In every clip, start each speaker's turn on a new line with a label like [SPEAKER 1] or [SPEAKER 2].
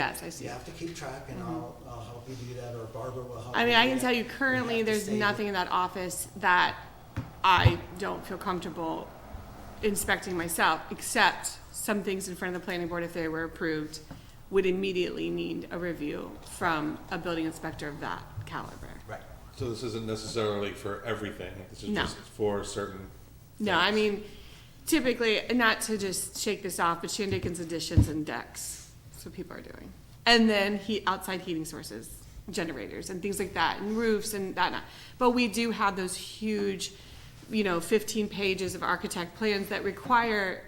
[SPEAKER 1] Yes, I see.
[SPEAKER 2] You have to keep track and I'll, I'll help you do that or Barbara will help.
[SPEAKER 1] Mm-hmm. I mean,
[SPEAKER 2] you do
[SPEAKER 1] I can
[SPEAKER 2] that.
[SPEAKER 1] tell you
[SPEAKER 2] We have
[SPEAKER 1] currently,
[SPEAKER 2] to
[SPEAKER 1] there's
[SPEAKER 2] save it.
[SPEAKER 1] nothing in that office that I don't feel comfortable inspecting myself, except some things in front of the planning board, if they were approved, would immediately need a review from a building inspector of that caliber.
[SPEAKER 2] Right.
[SPEAKER 3] So this isn't necessarily for everything, this is
[SPEAKER 1] No.
[SPEAKER 3] just for certain.
[SPEAKER 1] No, I mean, typically, not to just shake this off, but shandigans additions and decks, so people are doing. And then he, outside heating sources, generators and things like that, and roofs and that, and that. but we do have those huge, you know, fifteen pages of architect plans that require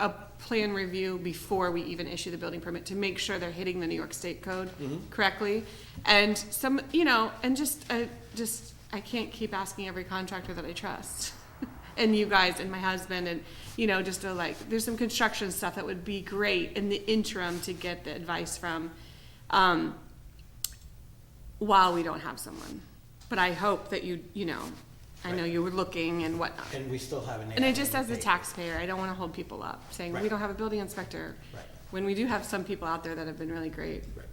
[SPEAKER 1] a plan review before we even issue the building permit to make sure they're hitting the New York State code correctly. And some, you know, and just, I, just, I can't keep asking every contractor that I trust. And you guys and my husband and, you know, just to like, there's some construction stuff that would be great in the interim to get the advice from, um, while we don't have someone. But I hope that you, you know, I know you were looking and whatnot.
[SPEAKER 2] And we still have an.
[SPEAKER 1] And I just, as a
[SPEAKER 2] the
[SPEAKER 1] taxpayer, I don't want to hold people up, saying, we
[SPEAKER 2] Right.
[SPEAKER 1] don't have a building inspector.
[SPEAKER 2] Right.
[SPEAKER 1] When we do have some people out there that have been really great.
[SPEAKER 2] Right.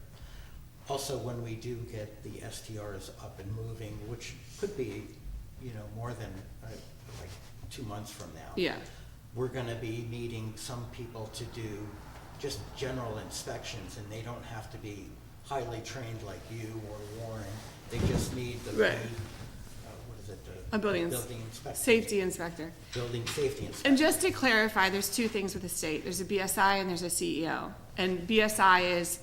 [SPEAKER 2] Also, when we do get the STRs up and moving, which could be, you know, more than, uh, like, two months from now.
[SPEAKER 1] Yeah.
[SPEAKER 2] We're gonna be needing some people to do just general inspections, and they don't have to be highly trained like you or Warren. They just need the,
[SPEAKER 1] Right.
[SPEAKER 2] uh, what is it? the-
[SPEAKER 1] A building ins-
[SPEAKER 2] Building inspector.
[SPEAKER 1] Safety inspector.
[SPEAKER 2] Building safety inspector.
[SPEAKER 1] And just to clarify, there's two things with the state. There's a BSI and there's a CEO. And BSI is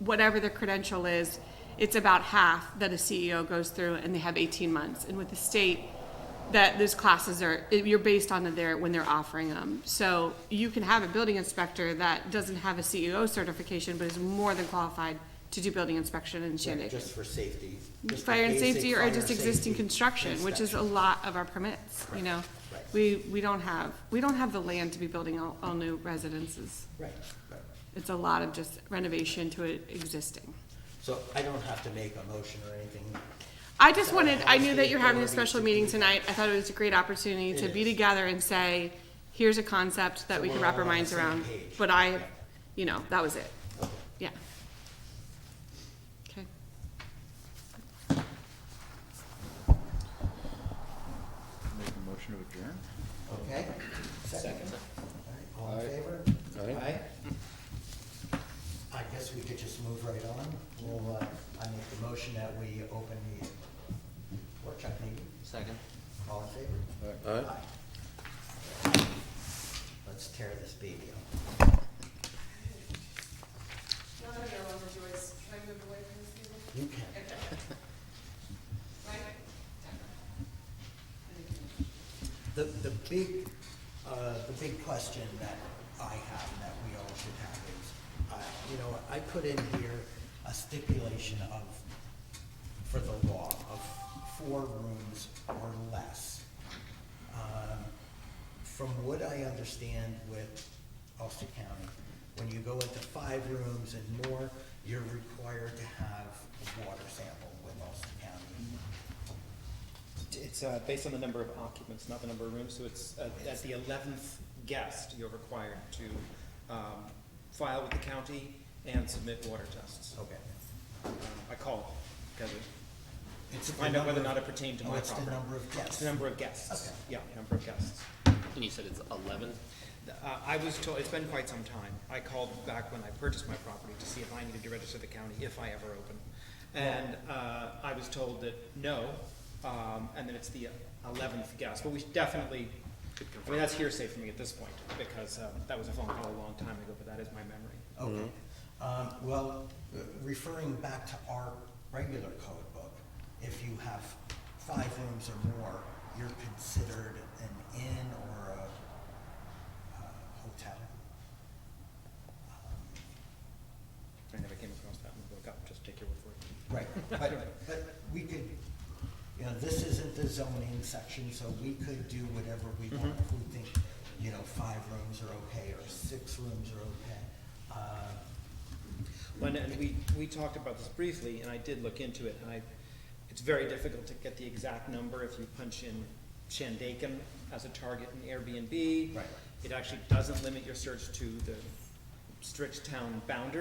[SPEAKER 1] whatever the credential is, it's about half that a CEO goes through and they have 18 months. And with the state, that those classes are, you're based on their, when they're offering them. So you can have a building inspector that doesn't have a CEO certification, but is more than qualified to do building inspection and
[SPEAKER 2] Right,
[SPEAKER 1] shindig.
[SPEAKER 2] Just for safety. just for
[SPEAKER 1] Fire and
[SPEAKER 2] basic
[SPEAKER 1] safety or
[SPEAKER 2] fire
[SPEAKER 1] just existing
[SPEAKER 2] safety
[SPEAKER 1] construction, which is a
[SPEAKER 2] inspection.
[SPEAKER 1] lot of our permits, you know?
[SPEAKER 2] Right.
[SPEAKER 1] We, we don't have, we don't have the land to be building all, all new residences.
[SPEAKER 2] Right, right.
[SPEAKER 1] It's a lot of just renovation to it existing.
[SPEAKER 2] So I don't have to make a motion or anything.
[SPEAKER 1] I just wanted, I knew that you're having a special meeting tonight, I thought it was a great opportunity to
[SPEAKER 2] It
[SPEAKER 1] be
[SPEAKER 2] is.
[SPEAKER 1] together and say, here's a concept that
[SPEAKER 2] So
[SPEAKER 1] we can
[SPEAKER 2] we're
[SPEAKER 1] wrap
[SPEAKER 2] all
[SPEAKER 1] our
[SPEAKER 2] on the
[SPEAKER 1] minds
[SPEAKER 2] same
[SPEAKER 1] around.
[SPEAKER 2] page.
[SPEAKER 1] But I,
[SPEAKER 2] Yeah.
[SPEAKER 1] you know, that was it,
[SPEAKER 2] Okay.
[SPEAKER 1] yeah. Okay,
[SPEAKER 4] Make a motion to adjourn?
[SPEAKER 2] Okay? Second. All right, All in favor?
[SPEAKER 3] Aye.
[SPEAKER 2] I guess we could just move right on. We'll, uh, I make the motion that we open the workshop meeting.
[SPEAKER 5] Second.
[SPEAKER 2] All in favor?
[SPEAKER 3] Aye.
[SPEAKER 2] Aye. Let's tear this baby up.
[SPEAKER 1] Now that I know I'm Joyce, can I move away from this table?
[SPEAKER 2] You can. The, the big, uh, the big question that I have, and that we all should have is, uh, you know, I put in here a stipulation of, for the law, of four rooms or less. Um, From what I understand with Ulster County, when you go into five rooms and more, you're required to have a water sample with Ulster County.
[SPEAKER 6] Mm-hmm. It's uh, based on the number of occupants, not the number of rooms, so it's, uh, at the eleventh guest, you're required to um, file with the county and submit water tests.
[SPEAKER 2] Okay.
[SPEAKER 6] Um, I call because
[SPEAKER 2] It's
[SPEAKER 6] to
[SPEAKER 2] the
[SPEAKER 6] find out whether or
[SPEAKER 2] number-
[SPEAKER 6] not it pertained to
[SPEAKER 2] oh,
[SPEAKER 6] my
[SPEAKER 2] it's the
[SPEAKER 6] property.
[SPEAKER 2] number of guests.
[SPEAKER 6] It's the number of guests,
[SPEAKER 2] Okay.
[SPEAKER 6] yeah, number of guests.
[SPEAKER 5] And you said it's eleven?
[SPEAKER 6] The- uh, I was told, it's been quite some time, I called back when I purchased my property to see if I needed to register the county if I ever open. And uh, I was told that no, um, and that it's the eleventh guess, but we should definitely, I mean, that's hearsay for me at this point, because um, that was a phone call a long time ago, but that is my memory.
[SPEAKER 2] Okay, um, well, referring back to our regular code book, if you have five rooms or more, you're considered an inn or a, uh hotel.
[SPEAKER 6] I never came across that in the book, I'll just take your word for it.
[SPEAKER 2] Right, but, but we could, you know, this isn't the zoning section, so we could do whatever we want. If we think, you know, five rooms are okay, or six rooms are okay. Uh,
[SPEAKER 6] Well, and- and we, we talked about this briefly, and I did look into it, and I, it's very difficult to get the exact number if you punch in Shandaken as a target in Airbnb.
[SPEAKER 2] Right.
[SPEAKER 6] It actually doesn't limit your search to the strict town boundary.